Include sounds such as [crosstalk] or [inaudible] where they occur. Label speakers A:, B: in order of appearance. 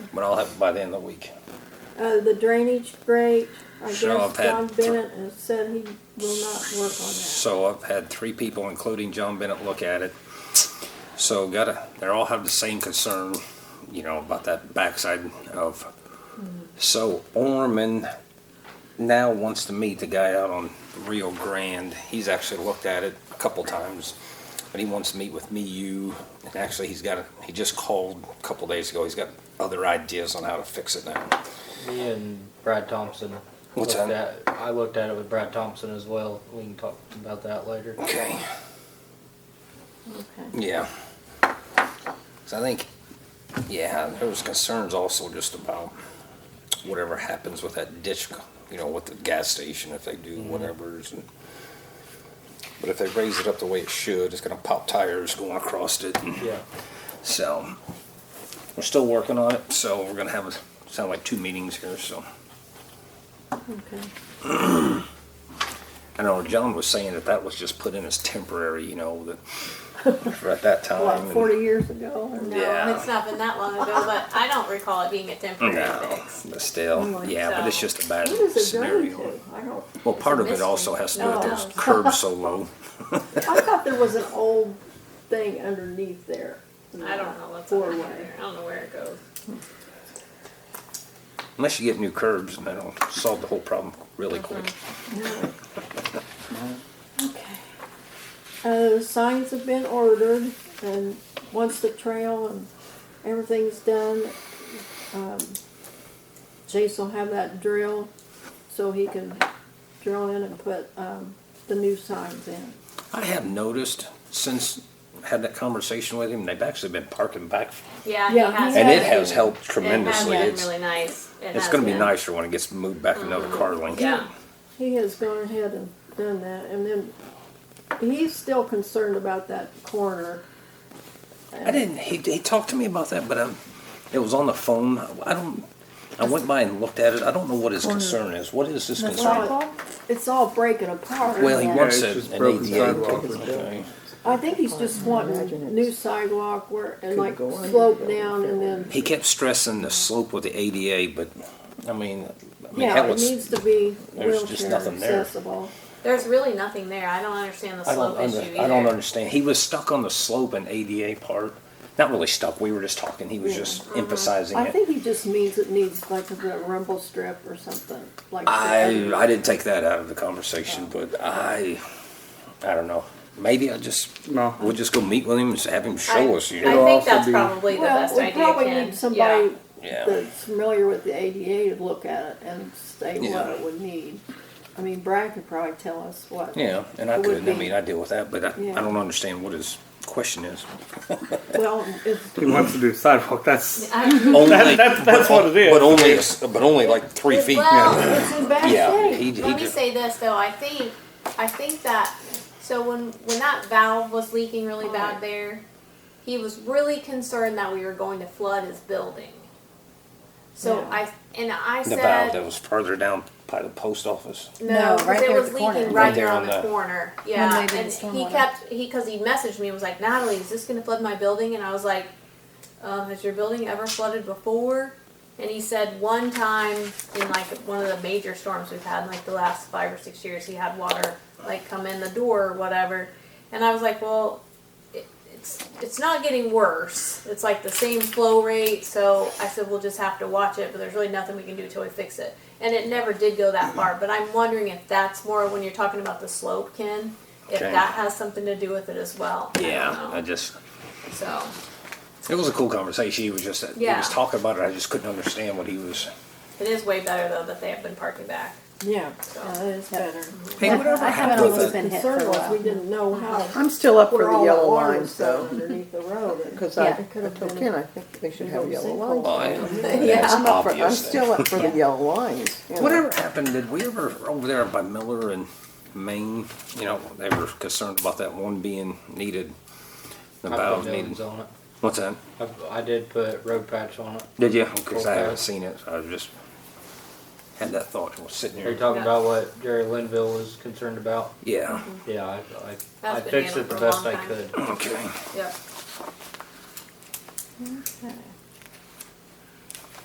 A: but I'll have it by the end of the week.
B: Uh, the drainage grate, I guess
A: Sure, I've had
B: John
A: thr-
B: Bennett has said he will not work on that.
A: So I've had three people, including John Bennett, look at it. So gotta, they all have the same concern, you know, about that backside of. So Orman now wants to meet the guy out on Rio Grande. He's actually looked at it a couple times, but he wants to meet with me, you, and actually he's got, a- he just called a couple days ago. He's got other ideas on how to fix it now.
C: Me and Brad Thompson.
A: What's
C: looked
A: that?
C: At, I looked at it with Brad Thompson as well. We can talk about that later.
A: Okay.
B: Okay.
A: Yeah. So I think, yeah, there was concerns also just about whatever happens with that ditch, you know, with the gas station, if they do
B: Mm-hmm.
A: whatever's. And, but if they raise it up the way it should, it's gonna pop tires going across it. and-
C: Yeah.
A: So, we're still working on it, so we're gonna have, a sound like two meetings here, so.
B: Okay.
A: I know John was saying that that was just put in as temporary, you know, that, for at that time.
B: [laughs] What,
A: and-
B: forty years ago?
D: No,
A: Yeah.
D: it's not been that long ago, but I don't recall it being a temporary
A: No,
D: fix.
A: but still,
B: Mm,
A: yeah, but it's
D: so-
A: just a bad
B: What is it going
A: scenario.
B: to? I don't,
A: Well, part of
D: It's a
A: it also has to do with
B: mystery.
A: those curbs so low.
B: I thought there was an old thing underneath there.
D: I don't know what's
B: Four
D: over
B: way.
D: there. I don't know where it goes.
A: Unless you get new curbs, and that'll solve the whole problem really
D: Uh-huh.
A: quick.
B: Okay. Uh, signs have been ordered and once the trail and everything's done, um, Chase will have that drill so he can drill in and put, um, the new signs in.
A: I have noticed since I had that conversation with him, they've actually been parking back.
D: Yeah,
B: Yeah,
D: it has.
B: he
A: And it
B: Yeah.
D: been-
A: has helped
D: It
A: tremendously.
D: has been
A: It's,
D: really nice. It
A: it's
D: has
A: gonna be
D: been.
A: nicer when it gets moved back another car length.
D: Yeah.
B: He has gone ahead and done that and then he's still concerned about that corner.
A: I didn't, he, he talked to me about that, but I, it was on the phone. I don't, I went by and looked at it. I don't know what his concern is. What is his
B: It's
A: concern?
B: all, it's all breaking apart.
A: Well, he
B: Yeah.
A: wants
E: it's
A: a-
E: just
A: an
E: broken
A: ADA.
E: sidewalk with
A: Okay.
B: I think he's just
F: Imagine
B: wanting
F: it's-
B: new sidewalk where, and
F: Could
B: like
F: go under
B: slope
F: the
B: down and then,
A: He kept stressing the slope with the ADA, but I mean, I mean,
B: yeah,
A: hell,
B: it
A: it's-
B: needs to be
A: there's just
B: wheelchair
A: nothing there.
B: accessible.
D: There's really nothing there. I don't understand the
A: I don't
D: slope
A: under,
D: issue
A: I don't
D: either.
A: understand. He was stuck on the slope and ADA part. Not really stuck. We were just talking. He was
B: Yeah.
A: just emphasizing
B: I
A: it.
B: think he just means it needs like a rumble strip or something, like.
A: I
B: that.
A: I didn't take that out of the conversation, but I I don't know. Maybe I just
E: No.
A: we'll just go meet with him and have him
D: I,
A: show us. You
D: I
A: know,
D: think
E: also
D: that's
E: be-
D: probably the
B: Well,
D: best
B: we
D: idea.
B: probably
D: Ken.
B: need somebody
A: Yeah.
B: that's familiar with the ADA to look at it and say what
A: Yeah.
B: it would need. I mean, Brad could probably tell us what.
A: yeah, and I
B: It would
A: couldn't. I
B: be-
A: mean, I deal with that, but I,
B: Yeah.
A: I don't understand what his question is.
B: Well, it's,
E: He wants to do sidewalk. That's
D: Yeah. I,
A: Only
E: that- that's
A: but,
E: what it is.
A: But only but only like three feet.
D: Well,
B: it's in bad
A: Yeah,
B: shape.
A: he, he
D: Let me
A: just-
D: say this though. I think I think that so when when that valve was leaking really bad there, he was really concerned that we were going to flood his building. So
B: Yeah.
D: I and I
A: the
D: said
A: valve that was farther down by the post office.
D: no,
F: No,
D: because
F: right
D: it
F: there at
D: was
F: the corner.
D: leaking
A: Right
D: right there
A: there
D: on
A: on
D: the,
A: the-
D: corner.
F: When
D: Yeah,
F: they did the
D: and he
F: stormwater.
D: kept he because he messaged me and was like, Natalie, is this going to flood my building? And I was like, um, Has your building ever flooded before? And he said one time in like one of the major storms we've had, in like the last five or six years, he had water like come in the door or whatever. And I was like, Well, it, it's it's not getting worse. It's like the same flow rate. So I said we'll just have to watch it, but there's really nothing we can do till we fix it. And it never did go that far. But I'm wondering if that's more when you're talking about the slope, Ken. If
A: Okay.
D: that has something to do with it as well. I
A: Yeah,
D: don't
A: I
D: know.
A: just
D: so
A: It was a cool conversation. He was just he
D: Yeah.
A: was talking about it. I just couldn't understand what he was.
D: it is way better though that they have been parking back.
B: Yeah, that is better.
A: Hey, whatever
F: I haven't
A: happened
F: always
A: with
F: been
A: that?
F: hit for
B: Concern
F: a
B: was, we
F: while.
B: didn't know how,
F: I'm still up for
B: where
F: the
B: all the
F: yellow
B: water was
F: lines
B: set
F: though,
B: underneath the road.
F: [laughs]
B: and-
F: because
B: Yeah,
F: I,
B: it could have
F: I told
B: been-
F: Ken I think they should have
B: been
F: yellow
B: sinkhole.
F: lines.
A: Oh, yeah.
D: Yeah.
A: It's
F: I'm up for, I'm
A: obvious then.
F: still up for the yellow lines. you know.
A: Whatever happened? Did we ever over there by Miller and Maine? You know, they were concerned about that one being needed. The
C: I
A: valve
C: put
A: needed.
C: millions on it.
A: What's that?
C: I, I did put road patch on it.
A: Did you? Because I
C: Okay.
A: haven't seen it. So I just had that thought. I was sitting
C: Are you
A: here.
C: talking
D: Yeah.
C: about what Jerry Linville was concerned about?
A: Yeah.
C: Yeah, I, I, I
D: been
C: fixed it
D: handled
C: the
D: for a
C: best
D: long
C: I
D: time.
C: could.
A: Okay.
D: Yep.
B: Okay.